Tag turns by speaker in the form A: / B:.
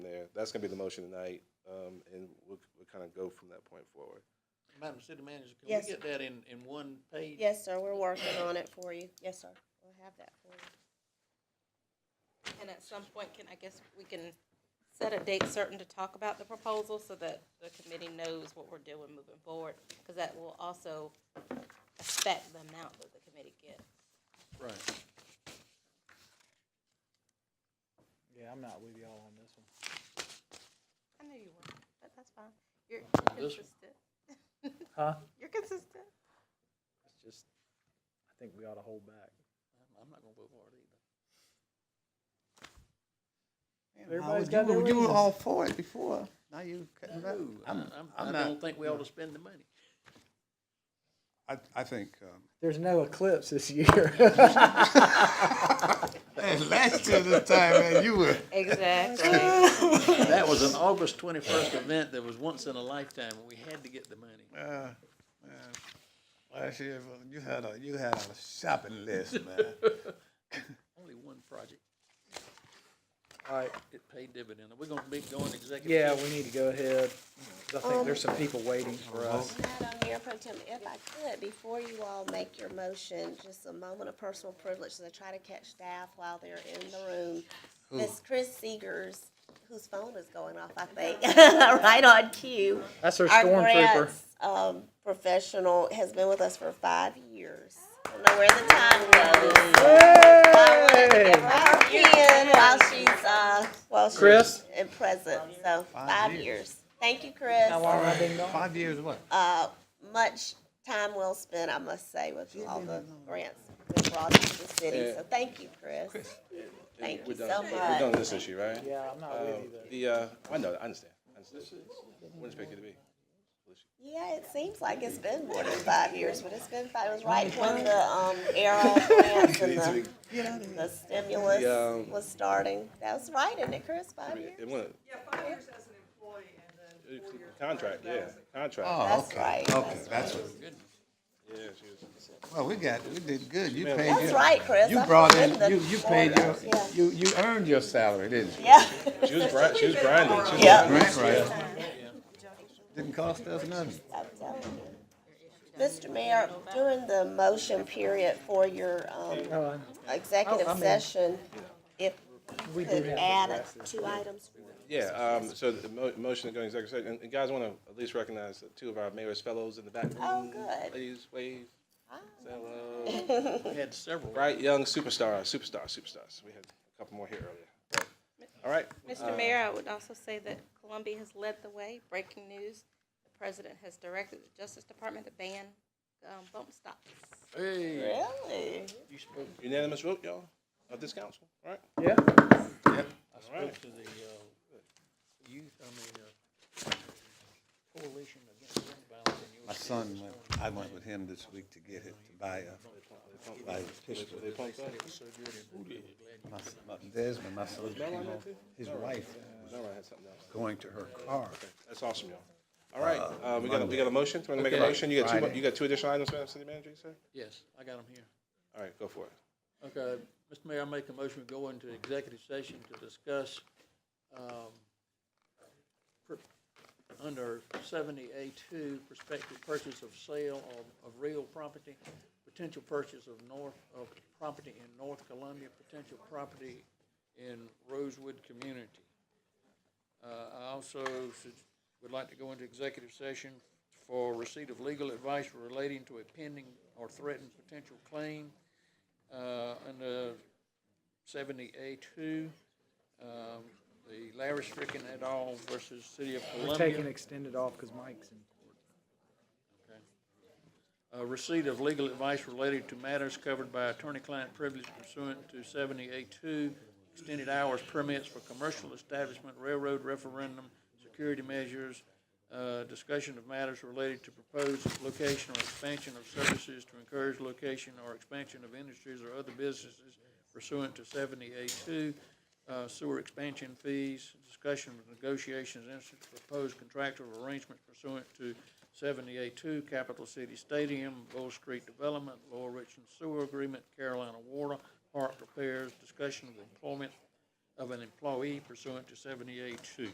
A: that's gonna be the motion tonight, um, and we'll, we'll kind of go from that point forward.
B: Madam City Manager, can
C: Yes.
B: we get that in, in one page?
C: Yes, sir, we're working on it for you. Yes, sir, we'll have that for you.
D: And at some point, can, I guess, we can set a date certain to talk about the proposal so that the committee knows what we're doing moving forward? Because that will also affect the amount that the committee gets.
B: Right.
E: Yeah, I'm not with y'all on this one.
D: I knew you were, but that's fine. You're
B: This
D: consistent.
E: Huh?
D: You're consistent.
E: It's just, I think we ought to hold back.
B: I'm- I'm not gonna vote for it either.
E: Everybody's
F: You
E: got their
F: were- You were
E: reasons.
F: all for it before, now you cutting back.
B: No,
F: I'm,
B: I'm-
F: I'm
B: I don't
F: not,
B: think we ought to spend the money.
G: I, I think, um,
F: uh,
E: There's no eclipse this year.
F: Man, last year this time, man, you were,
D: Exactly.
B: That was an August twenty-first event that was once in a lifetime, and we had to get the money.
F: uh, man, last year, you had a, you had a shopping list, man.
B: Only one project,
E: All right,
B: it paid dividend. Are we gonna be going executive?
E: yeah,
B: session?
E: we need to go ahead. 'cause I think there's some people waiting for us.
C: Madam Mayor Pro Tem, if I could, before you all make your motion, just a moment of personal privilege, as I try to catch staff while they're in the room. Miss Chris Seegers, whose phone is going off, I think, right on cue.
E: That's our
C: Our
E: stormtrooper.
C: grants, um, professional has been with us for five years. I don't know where the time goes.
E: Hey!
C: in while she's, uh, while she's.
E: Chris?
C: In present, so five
F: years.
C: years. Thank you, Chris.
E: How long have I been gone?
F: Five years what?
C: Uh, much time well spent, I must say, with all the grants that brought to the city, so thank you, Chris. Thank you
A: We're
C: so
A: done. We're done
C: much.
A: with this issue, right?
E: Yeah, I'm not with you
A: Um,
E: there.
A: The, uh, I know, I understand, I understand. Wouldn't expect you to be.
C: Yeah, it seems like it's been more than five years, but it's been five, it was right when the, um, era grants and the, the stimulus
A: The, um,
C: was starting. That was right, isn't it, Chris,
A: I
C: five
A: mean,
C: years?
A: it wouldn't,
H: Yeah, five years as an employee and then four years.
A: contract, yeah, contract,
F: Oh,
C: That's
F: okay,
C: right,
F: okay, that's, what-
A: yeah, she was.
F: well, we got, we did good, you paid your.
C: That's right, Chris.
F: You
C: I
F: brought in,
C: forgot the
F: you, you paid your,
C: orders, yeah.
F: you, you earned your salary, didn't you?
C: Yeah,
A: She was grinding, she was grinding. She was-
C: yeah.
F: Right, right. Didn't cost us nothing.
C: I'm telling you. Mr. Mayor, during the motion period for your, um,
E: Uh, Oh, I
C: executive
E: mean-
C: session, if
E: We
C: you
E: do
C: could
E: have
C: add
E: to
C: a-
E: address this.
C: two items.
A: Yeah, um, so the mo- motion to go into executive session, and- and guys, I want to at least recognize the two of our mayor's fellows in the back room.
C: Oh, good.
A: Please wave,
C: Ah.
A: say hello.
B: We had several.
A: Bright young superstars, superstars, superstars. We had a couple more here earlier. But, All right,
D: Mr. Mayor, I would also say that Columbia has led the way. Breaking news, the president has directed the Justice Department to ban um, bump stops.
B: Hey,
C: Really?
B: you spoke,
A: Uh, unanimous vote, y'all, of this council, all right?
E: Yeah,
B: I spoke to the, uh, youth, I mean, uh, coalition against gun violence in your
F: My son went, I went with him this week to get it, to buy a, buy a pistol. My, my Desmond, my son, came home, his wife was
A: No, I had something else.
F: going to her car.
A: That's awesome, y'all. All right, uh, we got, a- we got a motion. Do you want to make a
B: Okay.
A: motion? You got two, mo-
F: Friday.
A: you got two additional items, Madam City Manager, you said?
B: Yes, I got them here.
A: All right, go for it.
B: Okay, Mr. Mayor, I make a motion to go into executive session to discuss, um, per- under seventy A two, prospective purchase of sale of, of real property, potential purchase of north, of property in North Columbia, potential property in Rosewood community. Uh, I also should, would like to go into executive session for receipt of legal advice relating to a pending or threatened potential claim, uh, under seventy A two, um, the Larry Stricken et al. versus City of
E: we're
B: Columbia.
E: taking extended off because Mike's in.
B: Uh, receipt of legal advice related to matters covered by attorney-client privilege pursuant to seventy-eight two, extended hours permits for commercial establishment, railroad referendum, security measures, uh, discussion of matters related to proposed location or expansion of services to encourage location or expansion of industries or other businesses pursuant to seventy-eight two, uh, sewer expansion fees, discussion of negotiations, instance proposed contractual arrangements pursuant to seventy-eight two, Capital City Stadium, Bull Street Development, Lower Richland Sewer Agreement, Carolina Water, Park Repairs, discussion of employment of an employee pursuant to seventy-eight two.